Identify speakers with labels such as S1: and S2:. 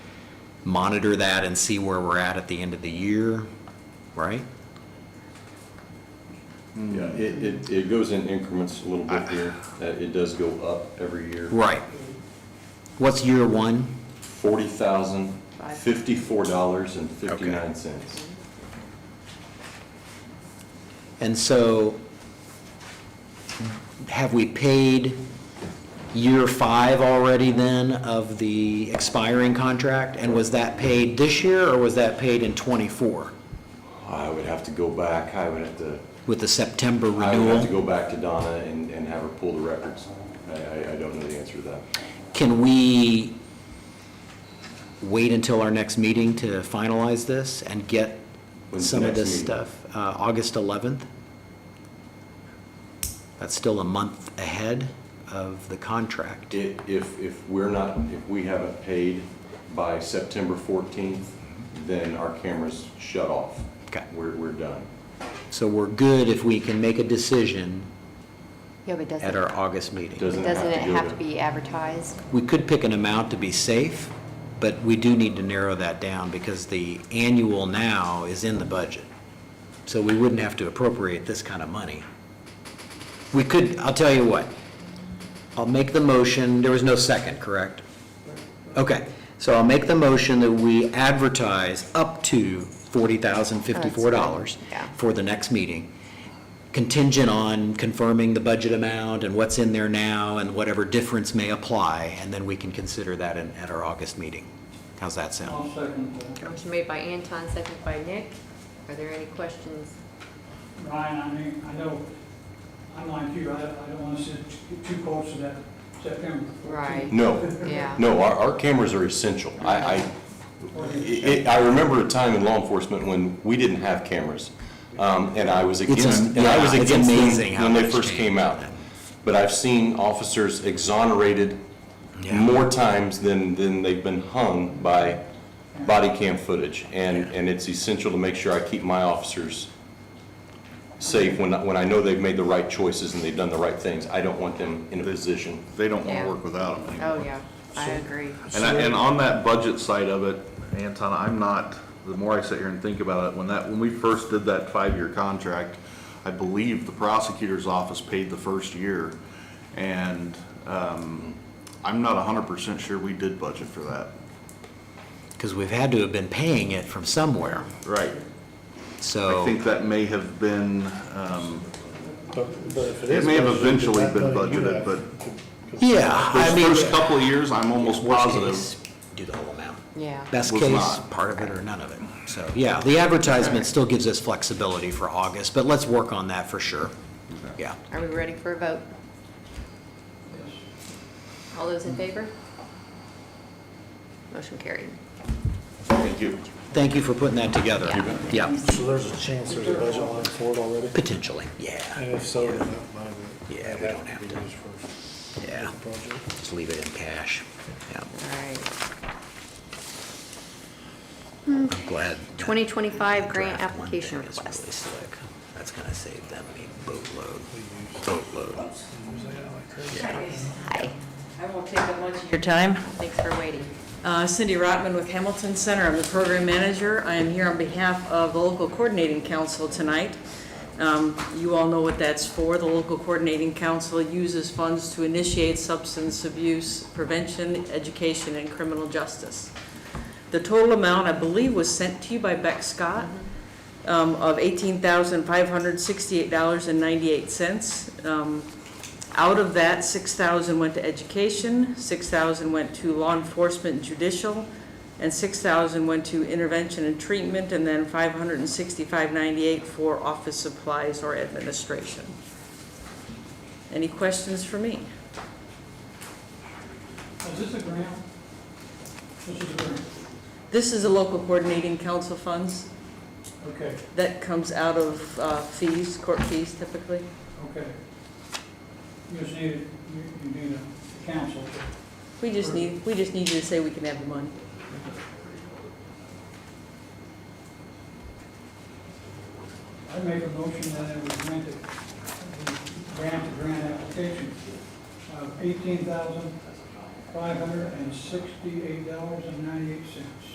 S1: monitor that and see where we're at at the end of the year, right?
S2: Yeah, it, it, it goes in increments a little bit here. Uh, It does go up every year.
S1: Right. What's year one?
S2: Forty thousand, fifty-four dollars and fifty-nine cents.
S1: And so have we paid year five already then of the expiring contract? And was that paid this year or was that paid in '24
S2: I would have to go back, I would have to,
S1: with the September
S2: I would have to
S1: renewal?
S2: go back to Donna and, and have her pull the records. I, I, I don't know the answer to that.
S1: Can we wait until our next meeting to finalize this and get
S2: When's the
S1: some of
S2: next
S1: this
S2: meeting?
S1: stuff? Uh, August 11th? That's still a month ahead of the contract.
S2: I- If, if we're not, if we haven't paid by September fourteenth, then our cameras shut off.
S1: Okay.
S2: We're, we're done.
S1: So we're good if we can make a decision
S3: Yeah, but doesn't,
S1: at our August meeting.
S2: Does-
S3: but
S2: Doesn't it have
S3: doesn't
S2: to go
S3: it have
S2: to-
S3: to be advertised?
S1: We could pick an amount to be safe, but we do need to narrow that down because the annual now is in the budget. So we wouldn't have to appropriate this kind of money. We could, I'll tell you what. I'll make the motion, there was no second, correct? Okay, so I'll make the motion that we advertise up to $40,054
S3: Yeah.
S1: for the next meeting, contingent on confirming the budget amount and what's in there now and whatever difference may apply, and then we can consider that in- at our August meeting. How's that sound?
S4: I'll second that.
S3: Motion made by Anton, seconded by Nick. Are there any questions?
S4: uh, Ryan, I mean, I know, I'm like you, I, I don't want to sit too- too close to that September. 14th.
S3: Right.
S2: No,
S3: Yeah.
S2: No, our, our cameras are essential. I, I, it- I remember a time in law enforcement when we didn't have cameras. Um, and I was against, and I was
S1: yeah, it's
S2: against
S1: amazing
S2: them
S1: how
S2: when they
S1: much
S2: first came
S1: changed.
S2: out. But I've seen officers exonerated
S1: Yeah.
S2: more times than, than they've been hung by body cam footage. And, and it's essential to make sure I keep my officers safe when, I- when I know they've made the right choices and they've done the right things. I don't want them in a position.
S5: They don't want
S3: Yeah.
S5: to work without them anymore.
S3: Oh, yeah, I agree.
S5: And, I- and on that budget side of it, Anton, I'm not, the more I sit here and think about it, when that, when we first did that five-year contract, I believe the prosecutor's office paid the first year, and, um, I'm not hundred percent sure we did budget for that.
S1: Because we've had to have been paying it from somewhere,
S5: Right.
S1: so.
S5: I think that may have been, um,
S6: But but if it
S5: It
S6: is
S5: may have
S6: budgeted,
S5: eventually
S6: that
S5: been
S6: money you
S5: budgeted,
S6: have
S5: but-
S6: could-
S1: Yeah, I
S5: those
S1: mean.
S5: first couple of years, I'm almost
S1: worst
S5: positive.
S1: case, Do the whole amount.
S3: Yeah.
S1: Best
S5: Was
S1: case,
S5: not.
S1: part of it or none of it. So, yeah, the advertisement still gives us flexibility for August, but let's work on that for sure. Yeah.
S3: Are we ready for a vote? All those in favor? Motion carried.
S5: Thank you.
S1: Thank you for putting that together. Yeah,
S6: So there's a chance there's a budget line for it already?
S1: potentially, yeah,
S6: And if so, then that money would.
S1: Yeah, we
S6: that
S1: don't
S6: would
S1: have
S6: be
S1: to.
S6: used for
S1: yeah.
S6: the project.
S1: Just leave it in cash. Yeah,
S3: All right.
S1: I'm glad. that
S3: 2025 grant
S1: draft one
S3: application
S1: thing is
S3: request.
S1: really slick. That's gonna save them a boatload, boatload.
S3: Hi.
S7: I won't take up much of your time.
S3: Thanks for waiting.
S7: Uh, Cindy Rotman with Hamilton Center, I'm the program manager. I am here on behalf of the local coordinating council tonight. Um, You all know what that's for. The local coordinating council uses funds to initiate substance abuse prevention, education, and criminal justice. The total amount, I believe, was sent to you by Beck Scott um, of $18,568.98. Um, Out of that, 6,000 went to education, 6,000 went to law enforcement and judicial, and 6,000 went to intervention and treatment, and then 565.98 for office supplies or administration. Any questions for me?
S4: Is this a grant? This is a grant,
S7: This is the local coordinating council funds
S4: okay,
S7: that comes out of uh, fees, court fees typically.
S4: okay. You just need, you, you need a council.
S7: We just need, we just need you to say we can have the money.
S4: I make a motion that it was granted, grant to grant application of eighteen thousand, five hundred and sixty-eight dollars and ninety-eight cents.